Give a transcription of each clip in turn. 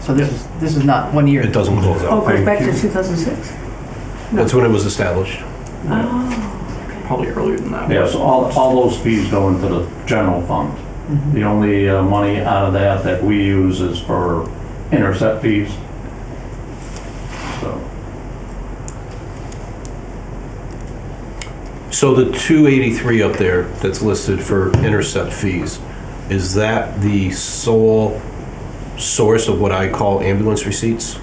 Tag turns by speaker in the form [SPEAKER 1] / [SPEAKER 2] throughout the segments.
[SPEAKER 1] So this is, this is not one year.
[SPEAKER 2] It doesn't close
[SPEAKER 3] Oh,
[SPEAKER 2] out.
[SPEAKER 3] it goes back to 2006?
[SPEAKER 4] Oh,
[SPEAKER 2] That's when it was established.
[SPEAKER 5] probably earlier than that.
[SPEAKER 4] Yes, all, all those fees go into the general fund.
[SPEAKER 1] Mm-hmm.
[SPEAKER 4] The only uh, money out of that that we use is for intercept fees. So,
[SPEAKER 2] So the 283 up there that's listed for intercept fees, is that the sole source of what I call ambulance receipts?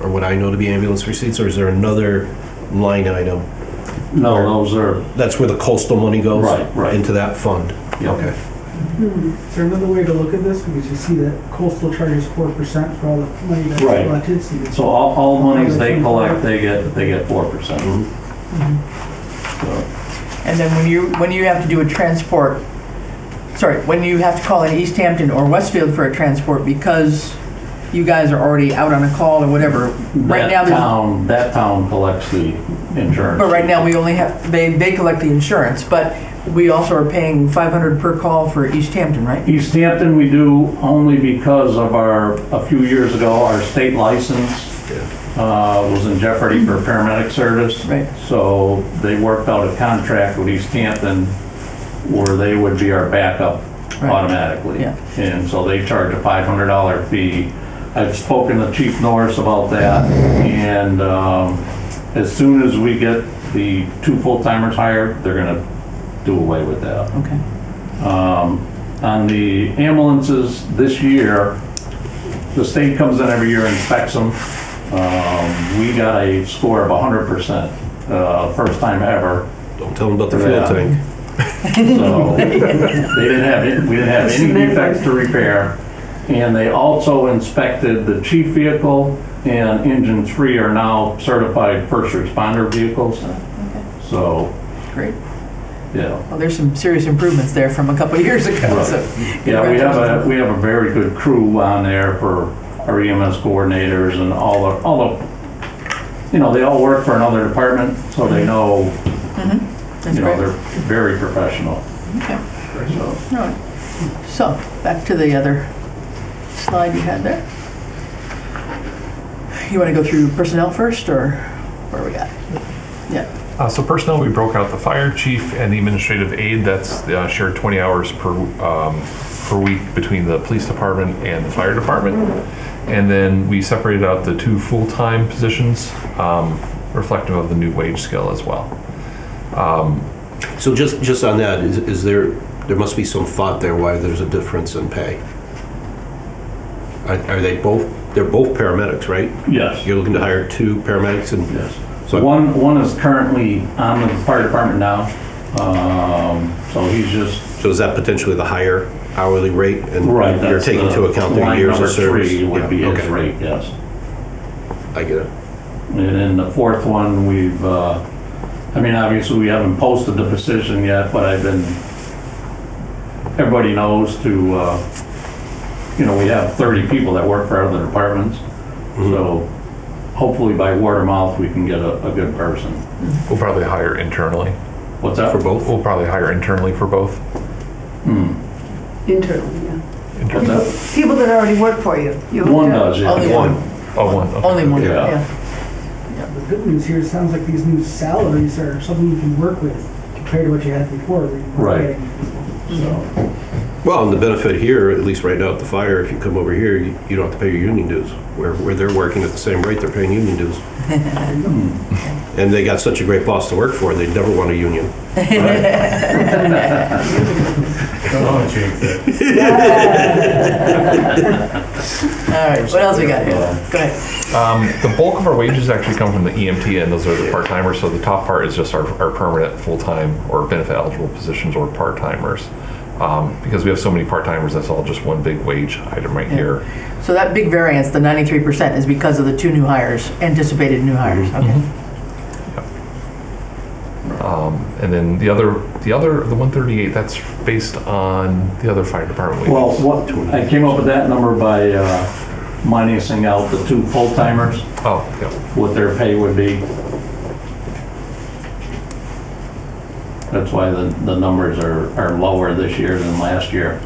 [SPEAKER 2] Or what I know to be ambulance receipts, or is there another line item?
[SPEAKER 4] no, those are,
[SPEAKER 2] That's where the coastal money goes?
[SPEAKER 4] Right, right.
[SPEAKER 2] Into that fund?
[SPEAKER 4] yeah,
[SPEAKER 6] Is there another way to look at this? Because you see that coastal charges four percent for all the money that's
[SPEAKER 4] Right.
[SPEAKER 6] collected, so you-
[SPEAKER 4] so all, all monies they collect, they get, they get four percent.
[SPEAKER 2] Mhm.
[SPEAKER 1] And then when you, when you have to do a transport, sorry, when you have to call in East Hampton or Westfield for a transport because you guys are already out on a call or whatever, right now
[SPEAKER 4] That
[SPEAKER 1] there's,
[SPEAKER 4] town, that town collects the insurance.
[SPEAKER 1] but right now we only have, they, they collect the insurance, but we also are paying five hundred per call for East Hampton, right?
[SPEAKER 4] East Hampton, we do only because of our, a few years ago, our state license uh, was in jeopardy for paramedic service.
[SPEAKER 1] Right.
[SPEAKER 4] So they worked out a contract with East Hampton where they would be our backup
[SPEAKER 1] Right.
[SPEAKER 4] automatically.
[SPEAKER 1] Yeah.
[SPEAKER 4] And so they charge a $500 fee. I've spoken to Chief Norris about that, and um, as soon as we get the two full-timers hired, they're gonna do away with that.
[SPEAKER 1] Okay.
[SPEAKER 4] On the ambulances this year, the state comes in every year and inspects them. Um, We got a score of 100%, uh, first time ever.
[SPEAKER 2] Don't tell them about the fuel
[SPEAKER 4] Yeah.
[SPEAKER 2] tank.
[SPEAKER 4] So they didn't have, it- we didn't have any defects to repair. And they also inspected the chief vehicle and engine three are now certified first responder vehicles. So,
[SPEAKER 1] Great.
[SPEAKER 4] yeah.
[SPEAKER 1] Well, there's some serious improvements there from a couple of years ago,
[SPEAKER 4] Right.
[SPEAKER 1] so.
[SPEAKER 4] Yeah, we have a, we have a very good crew on there for our EMS coordinators and all the, all the, you know, they all work for another department, so they know,
[SPEAKER 1] That's
[SPEAKER 4] you know,
[SPEAKER 1] great.
[SPEAKER 4] they're very professional.
[SPEAKER 1] Okay.
[SPEAKER 4] So,
[SPEAKER 1] All right. So, back to the other slide you had there. You want to go through personnel first, or where we at? Yeah,
[SPEAKER 7] Uh, so personnel, we broke out the fire chief and the administrative aide. That's uh, shared 20 hours per um, per week between the police department and the fire department. And then we separated out the two full-time positions, um, reflective of the new wage scale as well.
[SPEAKER 2] So just, just on that, is, is there, there must be some thought there why there's a difference in pay? Are, are they both, they're both paramedics, right?
[SPEAKER 4] yes,
[SPEAKER 2] You're looking to hire two paramedics and,
[SPEAKER 4] yes.
[SPEAKER 2] So-
[SPEAKER 4] One, one is currently on the fire department now, um, so he's just.
[SPEAKER 2] so is that potentially the higher hourly rate? And You're
[SPEAKER 4] that's
[SPEAKER 2] taking into
[SPEAKER 4] the-
[SPEAKER 2] account their
[SPEAKER 4] line
[SPEAKER 2] years of
[SPEAKER 4] number
[SPEAKER 2] service?
[SPEAKER 4] three
[SPEAKER 2] Yeah,
[SPEAKER 4] Would be his
[SPEAKER 2] okay.
[SPEAKER 4] rate, yes.
[SPEAKER 2] I get it.
[SPEAKER 4] And then the fourth one, we've, uh, I mean, obviously, we haven't posted the position yet, but I've been, everybody knows to, uh, you know, we have 30 people that work for other departments. So hopefully by word of mouth, we can get a, a good person.
[SPEAKER 7] We'll probably hire internally.
[SPEAKER 4] What's that?
[SPEAKER 2] For both?
[SPEAKER 7] We'll probably hire internally for both.
[SPEAKER 3] Internally, yeah.
[SPEAKER 4] What's that?
[SPEAKER 3] People that already work for you. You-
[SPEAKER 4] One does, yeah.
[SPEAKER 1] Only
[SPEAKER 2] One.
[SPEAKER 7] Oh, one. okay.
[SPEAKER 1] only one,
[SPEAKER 2] Yeah.
[SPEAKER 1] yeah.
[SPEAKER 6] the good news here, it sounds like these new salaries are something you can work with compared to what you had before. where you
[SPEAKER 4] Right.
[SPEAKER 6] were getting-
[SPEAKER 4] So,
[SPEAKER 2] Well, and the benefit here, at least right now at the fire, if you come over here, you you don't have to pay your union dues. Where, where they're working at the same rate, they're paying union dues.
[SPEAKER 4] Hmm.
[SPEAKER 2] And they got such a great boss to work for, they'd never want a union.
[SPEAKER 1] All right, what else we got here?
[SPEAKER 4] Yeah.
[SPEAKER 1] Go ahead.
[SPEAKER 7] Um, the bulk of our wages actually come from the EMT, and those are the part timers. So the top part is just our, our permanent full time or benefit eligible positions or part timers. Um, because we have so many part timers, that's all just one big wage item right here.
[SPEAKER 1] So that big variance, the ninety-three percent, is because of the two new hires, anticipated new hires, okay?
[SPEAKER 7] Um, And then the other, the other, the 138, that's based on the other fire department wages.
[SPEAKER 4] well, what, I came up with that number by, uh, minusing out the two full-timers,
[SPEAKER 7] oh, yeah.
[SPEAKER 4] what their pay would be. That's why the, the numbers are, are lower this year than last year.